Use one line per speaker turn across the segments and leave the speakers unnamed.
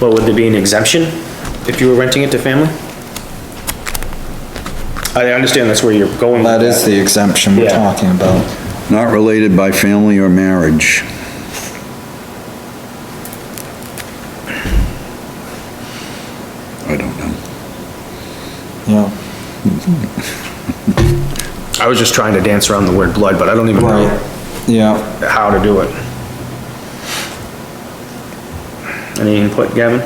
Well, would there be an exemption if you were renting it to family? I understand that's where you're going. with
That is the exemption we're
Yeah.
talking about.
Not related by family or marriage. I don't
Yeah,
know.
I was just trying to dance around the word blood, but I don't even know
right, yeah.
how to do it. Any input, Gavin?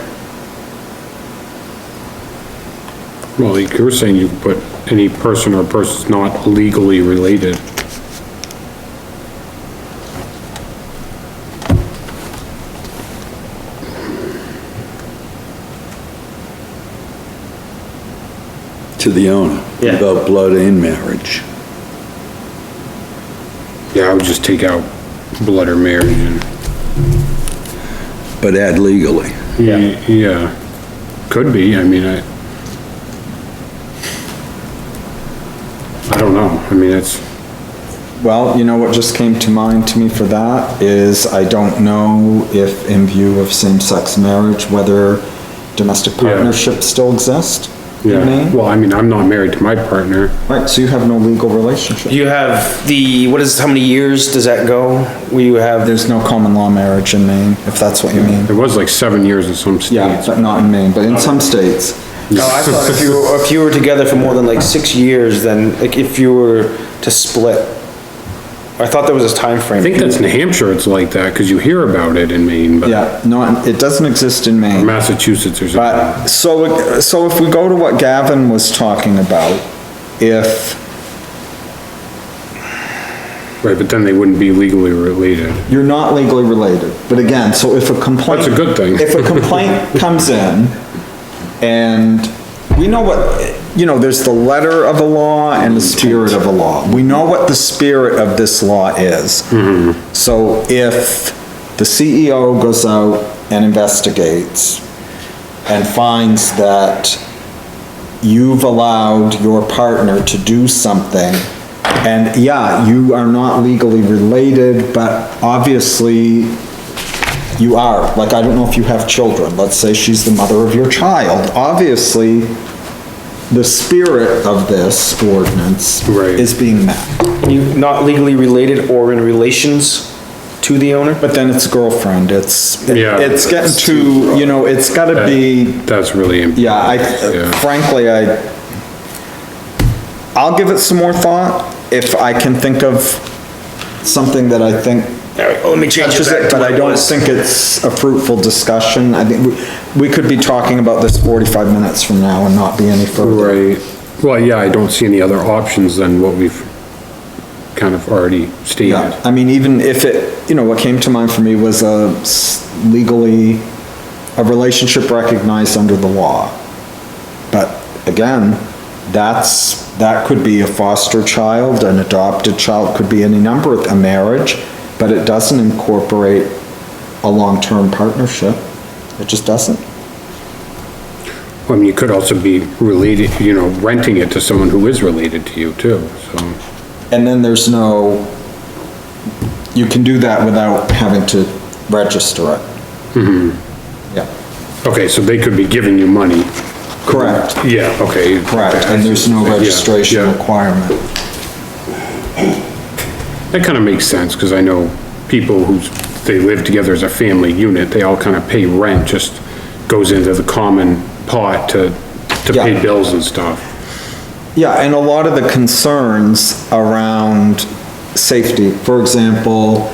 Well, you're saying you put any person or persons not legally related.
To the owner.
Yeah.
About blood and marriage.
Yeah, I would just take out blood or marriage and,
But add legally.
Yeah.
yeah, could be, I mean, I. I don't know, I mean, it's,
Well, you know what just came to mind to me for that is I don't know if in view of same-sex marriage, whether domestic partnerships still exist in
yeah,
Maine.
well, I mean, I'm not married to my partner.
Right, so you have no legal relationship.
You have the, what is, how many years does that go? Where you have,
There's no common law marriage in Maine, if that's what you mean.
It was like seven years in some
Yeah,
states.
but not in Maine, but in some states.
no, I thought if you, were- if you were together for more than like six years, then, like, if you were to split. I thought there was a time frame.
I think that's New Hampshire, it's like that, because you hear about it in Maine, but
Yeah, not, it doesn't exist in Maine.
Massachusetts or something.
But, so, so if we go to what Gavin was talking about, if
Right, but then they wouldn't be legally related.
you're not legally related, but again, so if a complaint.
That's a good thing.
If a complaint comes in and we know what, you know, there's the letter of a law and the spirit of a law. We know what the spirit of this law is.
Mm-hmm.
So if the CEO goes out and investigates and finds that you've allowed your partner to do something, and yeah, you are not legally related, but obviously you are. Like, I don't know if you have children, let's say she's the mother of your child. Obviously, the spirit of this ordinance
Right.
is being met.
You not legally related or in relations to the owner?
But then it's girlfriend, it's,
Yeah.
it's getting too, you know, it's gotta be
That's really. im-
Yeah,
Yeah.
I, frankly, I, I'll give it some more thought if I can think of something that I think
All right, let me change
touches it, but I don't think it's a fruitful discussion. I think we, we could be talking about this forty-five minutes from now and not be any further.
Right, well, yeah, I don't see any other options than what we've kind of already
Yeah,
stated.
I mean, even if it, you know, what came to mind for me was a s- legally, a relationship recognized under the law. But again, that's, that could be a foster child, an adopted child, could be any number of, a marriage, but it doesn't incorporate a long-term partnership. It just doesn't.
I mean, you could also be related, you know, renting it to someone who is related to you too, so.
And then there's no, you can do that without having to register it. Mm-hmm. Yeah.
Okay, so they could be giving you money.
Correct,
Yeah, okay.
correct, and there's no
Yeah,
registration
yeah.
requirement.
That kind of makes sense, because I know people who, they live together as a family unit, they all kind of pay rent, just goes into the common pot to, to
Yeah.
pay bills and stuff.
Yeah, and a lot of the concerns around safety, for example,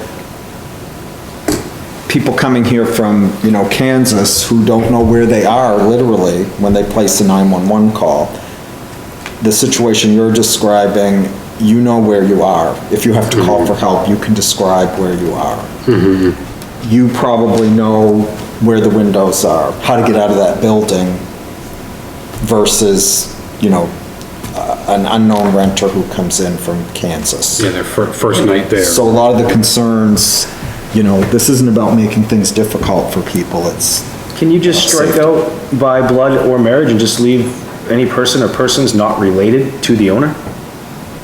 people coming here from, you know, Kansas who don't know where they are literally when they place a 911 call. The situation you're describing, you know where you are. If you have to call for help, you can describe where you are. you probably know where the windows are, how to get out of that building versus, you know, uh, an unknown renter who comes in from Kansas.
Yeah, their fir- first night there.
So a lot of the concerns, you know, this isn't about making things difficult for people, it's,
Can you just strike out by blood or marriage and just leave any person or persons not related to the owner?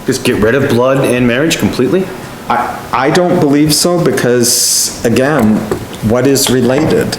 Just get rid of blood and marriage completely?
I, I don't believe so because, again, what is related?